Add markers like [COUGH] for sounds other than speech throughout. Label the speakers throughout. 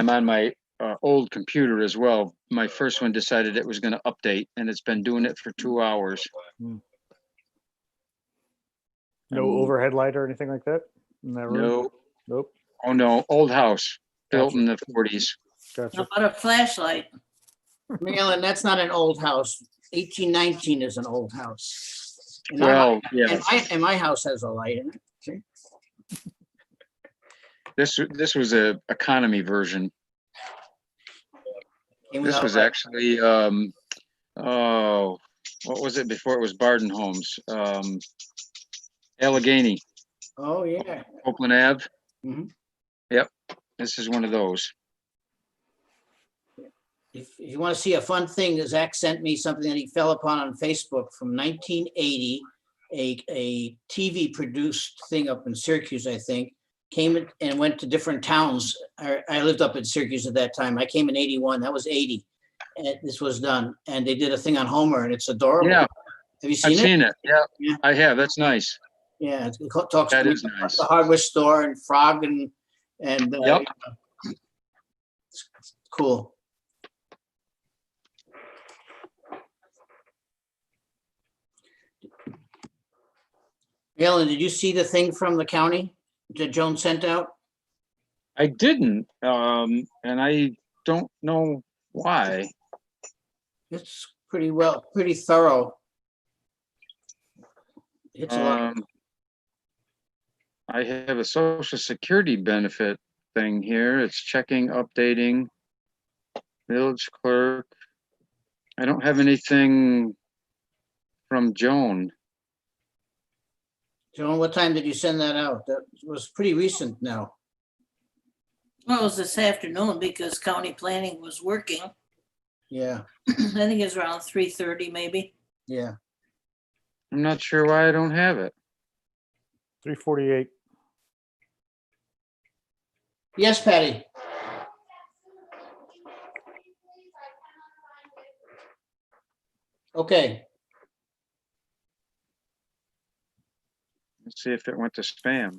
Speaker 1: I'm on my uh, old computer as well. My first one decided it was going to update and it's been doing it for two hours.
Speaker 2: No
Speaker 1: Um,
Speaker 2: overhead light or anything like that? in that room?
Speaker 1: No,
Speaker 2: Nope.
Speaker 1: oh no, old house built in the forties.
Speaker 2: Gotcha.
Speaker 3: How about a flashlight?
Speaker 4: Marilyn, that's not an old house. Eighteen nineteen is an old house. And our-
Speaker 1: Well, yeah,
Speaker 4: And my, and my house has a light in it.
Speaker 1: this, this was a economy version.
Speaker 4: Came
Speaker 1: This
Speaker 4: without
Speaker 1: was
Speaker 4: light.
Speaker 1: actually, um, oh, what was it before it was Barden Homes? Um, Allegheny,
Speaker 4: Oh, yeah.
Speaker 1: Oakland Ave.
Speaker 4: Mhm.
Speaker 1: Yep, this is one of those.
Speaker 4: If if you want to see a fun thing, Zach sent me something that he fell upon on Facebook from nineteen eighty. A, a TV produced thing up in Syracuse, I think, came in- and went to different towns. I, I lived up in Syracuse at that time. I came in eighty-one, that was eighty. And this was done, and they did a thing on Homer and it's adorable.
Speaker 1: Yeah.
Speaker 4: Have you
Speaker 1: I've
Speaker 4: seen it?
Speaker 1: seen it. Yeah,
Speaker 4: Yeah.
Speaker 1: I have. That's nice.
Speaker 4: Yeah, it co- talks
Speaker 1: That
Speaker 4: to
Speaker 1: is nice.
Speaker 4: the hardware store and Frog and, and. uh,
Speaker 1: Yep.
Speaker 4: you know. It's- it's Cool. Alan, did you see the thing from the county that Joan sent out?
Speaker 1: I didn't, um, and I don't know why.
Speaker 4: It's pretty well, pretty thorough. It's a lot.
Speaker 1: Um, I have a social security benefit thing here. It's checking, updating. Village clerk. I don't have anything from Joan.
Speaker 4: Joan, what time did you send that out? That was pretty recent now.
Speaker 3: Well, it was this afternoon because county planning was working. [CLEARS THROAT]
Speaker 4: Yeah,
Speaker 3: I think it's around three thirty maybe.
Speaker 4: yeah.
Speaker 1: I'm not sure why I don't have it.
Speaker 2: Three forty-eight.
Speaker 4: Yes, Patty? Okay,
Speaker 1: Let's see if it went to spam.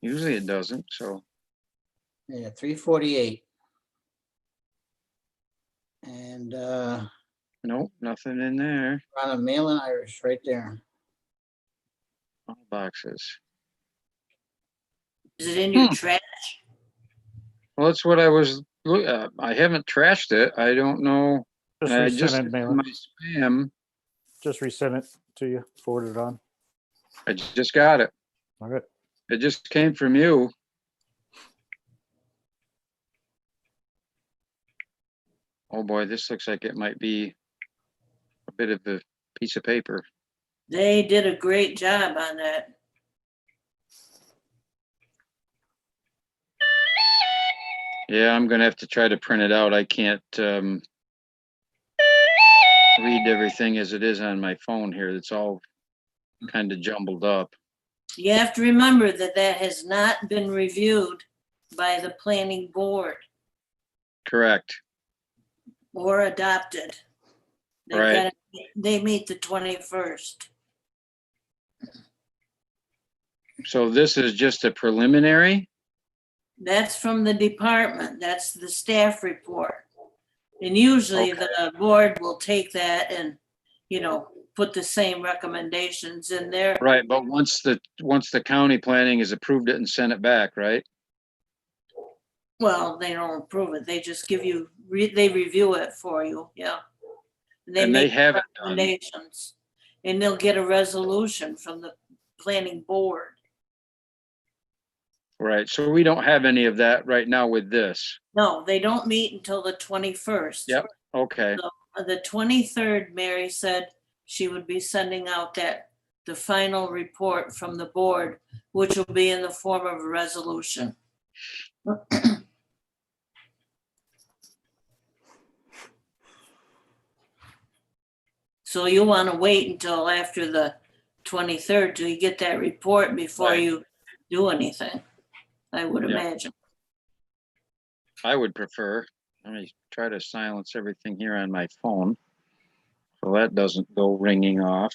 Speaker 1: Usually it doesn't, so
Speaker 4: yeah, three forty-eight. And uh,
Speaker 1: nope, nothing in there.
Speaker 4: on a mail in Irish right there.
Speaker 1: All boxes.
Speaker 3: Is it in your
Speaker 1: Hmm.
Speaker 3: trash?
Speaker 1: Well, that's what I was, loo- uh, I haven't trashed it. I don't know.
Speaker 2: Just
Speaker 1: I just,
Speaker 2: resend it, Malin.
Speaker 1: my spam,
Speaker 2: Just resend it to you, forward it on.
Speaker 1: I j- just got it.
Speaker 2: All right.
Speaker 1: It just came from you. Oh, boy, this looks like it might be a bit of a piece of paper.
Speaker 3: They did a great job on that.
Speaker 1: Yeah, I'm gonna have to try to print it out. I can't, um, read everything as it is on my phone here. It's all kind of jumbled up.
Speaker 3: You have to remember that that has not been reviewed by the planning board
Speaker 1: Correct.
Speaker 3: or adopted. They've
Speaker 1: Right.
Speaker 3: gotta- They meet the twenty-first.
Speaker 1: So this is just a preliminary?
Speaker 3: That's from the department. That's the staff report. And usually the board will take that and, you know, put the same recommendations in there.
Speaker 1: Right, but once the, once the county planning has approved it and sent it back, right?
Speaker 3: Well, they don't approve it. They just give you, re- they review it for you, yeah.
Speaker 1: And they um,
Speaker 3: make
Speaker 1: haven't done,
Speaker 3: recommendations. And they'll get a resolution from the planning board.
Speaker 1: right, so we don't have any of that right now with this.
Speaker 3: No, they don't meet until the twenty-first.
Speaker 1: Yep. Okay,
Speaker 3: Uh, The twenty-third, Mary said she would be sending out that, the final report from the board, which will be in the form of a resolution. [CLEARS THROAT] So you want to wait until after the twenty-third till you get that report before
Speaker 1: Right.
Speaker 3: you do anything, I would
Speaker 1: Yeah.
Speaker 3: imagine.
Speaker 1: I would prefer, let me try to silence everything here on my phone. So that doesn't go ringing off.